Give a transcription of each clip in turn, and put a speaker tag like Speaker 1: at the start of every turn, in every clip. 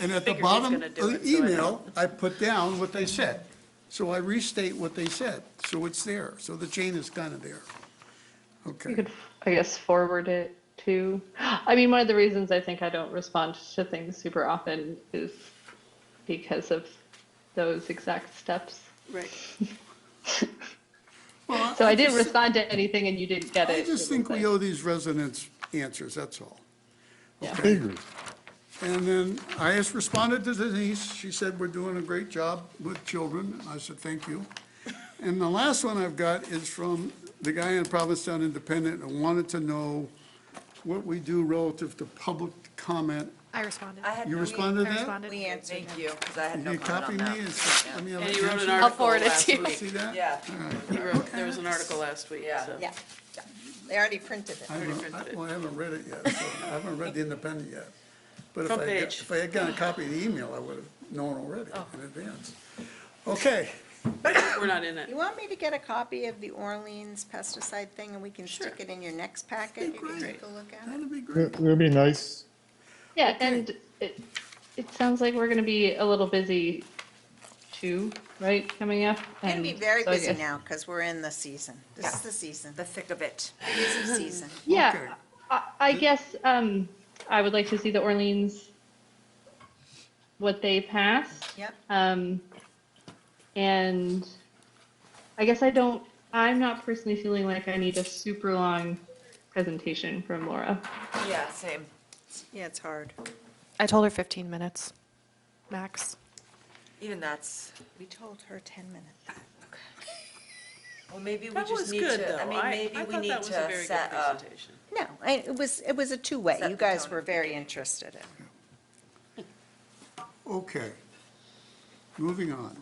Speaker 1: And at the
Speaker 2: figured he was
Speaker 1: bottom
Speaker 2: gonna
Speaker 1: of
Speaker 2: do
Speaker 1: the
Speaker 2: it, so I
Speaker 1: email, I put down what they said. So I restate what they said, so it's there, so the chain is kind of there.
Speaker 3: You
Speaker 1: Okay,
Speaker 3: could, I guess, forward it to, I mean, one of the reasons I think I don't respond to things super often is because of those exact steps.
Speaker 2: Right.
Speaker 1: Well,
Speaker 3: So I didn't
Speaker 1: just-
Speaker 3: respond to anything and you didn't get it.
Speaker 1: I just think we
Speaker 3: It was
Speaker 1: owe these residents answers, that's all.
Speaker 3: Yeah.
Speaker 1: Okay. And then I just responded to Denise, she said, we're doing a great job with children, I said, thank you. And the last one I've got is from the guy in Provincetown Independent, and wanted to know what we do relative to public comment.
Speaker 4: I responded.
Speaker 5: I had
Speaker 1: You
Speaker 5: no-
Speaker 1: responded
Speaker 4: I
Speaker 1: to that?
Speaker 4: responded.
Speaker 5: We answered him. Thank you, because I had
Speaker 1: You
Speaker 5: no
Speaker 1: copy
Speaker 5: comment
Speaker 1: me
Speaker 5: on
Speaker 1: and s- let me have
Speaker 2: And
Speaker 1: a
Speaker 2: you wrote
Speaker 1: chance
Speaker 2: an
Speaker 1: to
Speaker 2: article
Speaker 3: forward it
Speaker 2: last
Speaker 3: to you.
Speaker 2: week.
Speaker 1: see that?
Speaker 5: that. Yeah,
Speaker 2: He wrote, there was an article last week,
Speaker 5: yeah,
Speaker 2: so.
Speaker 5: yeah. yeah. They already printed
Speaker 1: I
Speaker 5: it.
Speaker 1: haven't, I- well, I haven't read it yet, so I haven't read the Independent yet. But if I,
Speaker 2: Front
Speaker 1: had got-
Speaker 2: page.
Speaker 1: if I had gotten a copy of the email, I would have known already
Speaker 5: Oh.
Speaker 1: in advance. Okay,
Speaker 2: We're not in it.
Speaker 5: You want me to get a copy of the Orleans pesticide thing and we can
Speaker 2: Sure.
Speaker 5: stick it in your next packet? You can take a look at it.
Speaker 1: that'd be great.
Speaker 6: It'd be nice.
Speaker 3: Yeah, and it, it sounds like we're gonna be a little busy too, right, coming up?
Speaker 5: It's gonna
Speaker 3: And
Speaker 5: be very
Speaker 3: so I
Speaker 5: busy
Speaker 3: guess-
Speaker 5: now, because we're in the season. This is the season, the
Speaker 7: the thick of it.
Speaker 5: busy season.
Speaker 1: Okay.
Speaker 3: Yeah, I, I guess, um, I would like to see the Orleans, what they passed.
Speaker 5: Yep.
Speaker 3: Um, and I guess I don't, I'm not personally feeling like I need a super long presentation from Laura.
Speaker 7: Yeah, same.
Speaker 5: Yeah, it's hard.
Speaker 4: I told her 15 minutes, max.
Speaker 7: Even that's,
Speaker 5: We told her 10 minutes.
Speaker 7: well, maybe we
Speaker 2: That was
Speaker 7: just need
Speaker 2: good,
Speaker 7: to, I
Speaker 2: though.
Speaker 7: mean,
Speaker 2: I,
Speaker 7: maybe
Speaker 2: I thought
Speaker 7: we
Speaker 2: that
Speaker 7: need
Speaker 2: was a
Speaker 7: to
Speaker 2: very good
Speaker 7: set a.
Speaker 2: presentation.
Speaker 5: No, I- it was, it was a two-way.
Speaker 7: Set
Speaker 5: You
Speaker 7: the
Speaker 5: guys
Speaker 7: tone.
Speaker 5: were very interested in it.
Speaker 1: Okay. Moving on.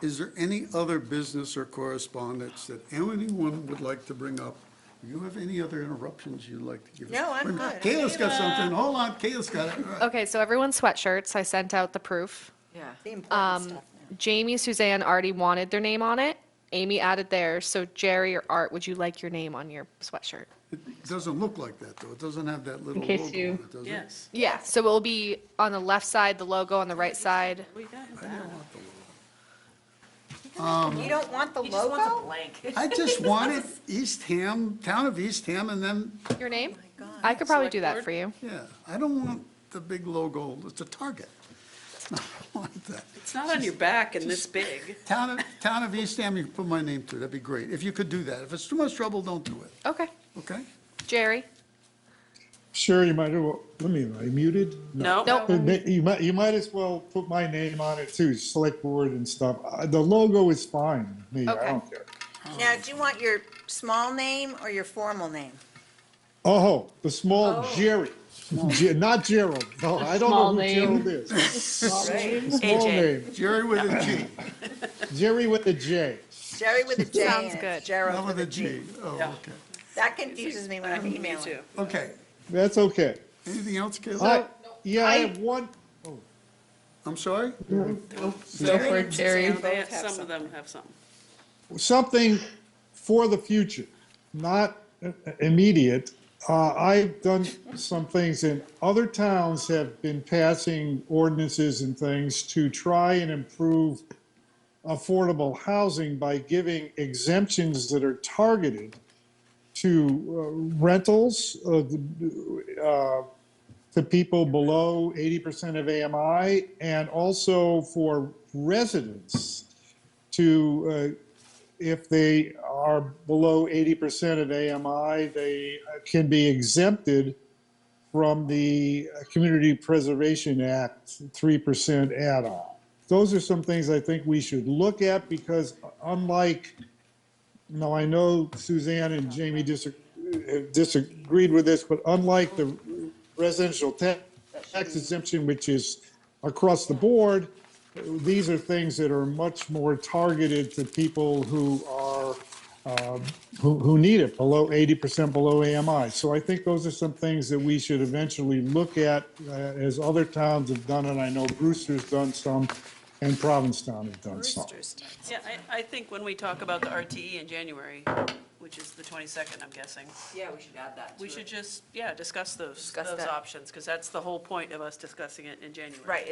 Speaker 1: Is there any other business or correspondence that anyone would like to bring up? Do you have any other interruptions you'd like to give? us?
Speaker 5: No, I'm
Speaker 1: Wait a minute.
Speaker 5: good.
Speaker 1: Kayla's got something, hold on, Kayla's got it. All
Speaker 3: Oh.
Speaker 1: right.
Speaker 4: Okay, so everyone's sweatshirts. I sent out the proof.
Speaker 7: Yeah.
Speaker 5: The important
Speaker 4: Um,
Speaker 5: stuff now.
Speaker 4: Jamie, Suzanne already wanted their name on it. Amy added theirs. So Jerry or Art, would you like your name on your sweatshirt?
Speaker 1: It doesn't look like that, though. It doesn't have that little logo
Speaker 3: case
Speaker 1: on
Speaker 3: you-
Speaker 1: it, does it?
Speaker 2: Yes.
Speaker 4: Yeah, so it'll be on the left side, the logo on the right side.
Speaker 2: We got it.
Speaker 5: Um, You don't want the
Speaker 7: He just wants a
Speaker 5: logo?
Speaker 7: blank.
Speaker 1: I just wanted East Ham, town of East Ham, and then,
Speaker 4: Your name? I could probably do
Speaker 2: Select
Speaker 4: that
Speaker 2: board?
Speaker 4: for you.
Speaker 1: yeah, I don't want the big logo, it's a target. I don't want that.
Speaker 2: It's not on your back and this big.
Speaker 1: Town of, town of East Ham, you can put my name to, that'd be great. If you could do that. If it's too much trouble, don't do it,
Speaker 4: Okay.
Speaker 1: okay?
Speaker 4: Jerry?
Speaker 6: Sure, you might, as well- let me, am I muted?
Speaker 2: No?
Speaker 4: Nope.
Speaker 6: Uh, ma- You might, you might as well put my name on it too, select board and stuff. Uh, The logo is fine, with me,
Speaker 4: Okay.
Speaker 6: I don't care.
Speaker 5: Now, do you want your small name or your formal name?
Speaker 6: Oh, the small Jerry, Ge- not Gerald, no, I don't
Speaker 3: Small
Speaker 6: know who
Speaker 3: name.
Speaker 6: Gerald is. Small
Speaker 7: AJ.
Speaker 6: name,
Speaker 1: Jerry with a G,
Speaker 6: Jerry with a J.
Speaker 5: Jerry with a J in
Speaker 4: Sounds
Speaker 5: it,
Speaker 4: good.
Speaker 1: not
Speaker 5: Gerald
Speaker 1: with a
Speaker 5: G.
Speaker 1: G. Oh,
Speaker 2: Yeah.
Speaker 1: okay.
Speaker 5: That confuses me when I'm
Speaker 2: Me
Speaker 5: emailing.
Speaker 2: too.
Speaker 1: Okay,
Speaker 6: That's okay.
Speaker 1: anything else,
Speaker 6: I,
Speaker 1: Kayla?
Speaker 6: yeah, I
Speaker 3: I-
Speaker 6: have one,
Speaker 1: I'm sorry?
Speaker 3: Go for it, Jerry.
Speaker 2: They-
Speaker 5: both have
Speaker 2: Some of them have some.
Speaker 6: something for the future, not i- immediate. Uh, I've done some things and other towns have been passing ordinances and things to try and improve affordable housing by giving exemptions that are targeted to uh, rentals, uh, the- uh, to people below 80% of AMI and also for residents to uh, if they are below 80% of AMI, they uh, can be exempted from the uh, Community Preservation Act 3% add-on. Those are some things I think we should look at because uh, unlike, now I know Suzanne and Jamie disag- have disagreed with this, but unlike the residential ta- tax exemption, which is across the board, these are things that are much more targeted to people who are, um, who, who need it, below 80% below AMI. So I think those are some things that we should eventually look at, uh, as other towns have done, and I know Brewster's done some, and Provincetown has done some.
Speaker 2: Yeah, I, I think when we talk about the RTE in January, which is the 22nd, I'm guessing,
Speaker 7: Yeah, we should add that to
Speaker 2: we
Speaker 7: it.
Speaker 2: should just, yeah, discuss those,
Speaker 7: Discuss
Speaker 2: those
Speaker 7: that.
Speaker 2: options, because that's the whole point of us discussing it in January.
Speaker 7: Right,